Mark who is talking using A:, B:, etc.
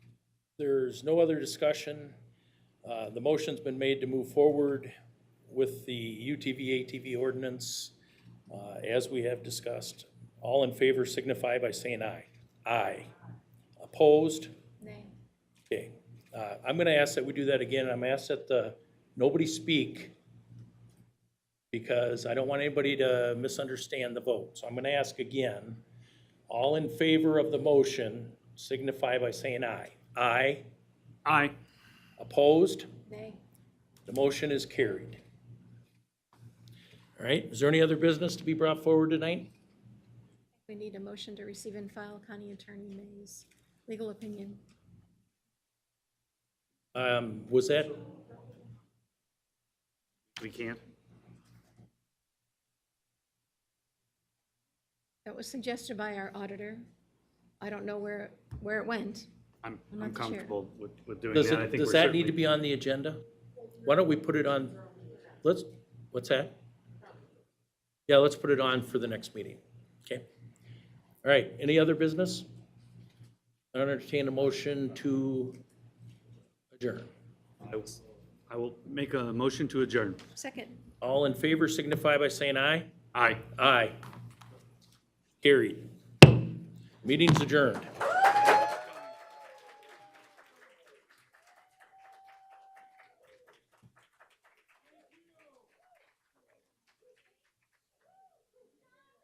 A: There's no other discussion. Uh, The motion's been made to move forward with the UTV ATV ordinance uh, as we have discussed. All in favor signify by saying aye. Aye. Opposed?
B: Nay.
A: Okay. Uh, I'm going to ask that we do that again. I'm asked that the, nobody speak because I don't want anybody to misunderstand the vote. So I'm going to ask again. All in favor of the motion signify by saying aye. Aye.
C: Aye.
A: Opposed?
B: Nay.
A: The motion is carried. All right, is there any other business to be brought forward tonight?
B: We need a motion to receive and file County Attorney May's legal opinion.
A: Um, Was that,
C: We can't.
B: That was suggested by our auditor. I don't know where, where it went.
C: I'm,
B: I'm
C: I'm
B: not the chair.
C: comfortable with, with doing that.
A: does
C: I
A: it,
C: think
A: does
C: we're
A: that need to
C: certainly-
A: be on the agenda? Why don't we put it on, let's, what's that? Yeah, let's put it on for the next meeting, okay? All right, any other business? I entertain a motion to adjourn.
C: I will- I will make a motion to adjourn.
B: Second.
A: All in favor signify by saying aye.
C: Aye.
A: Aye. Carried. Meeting's adjourned.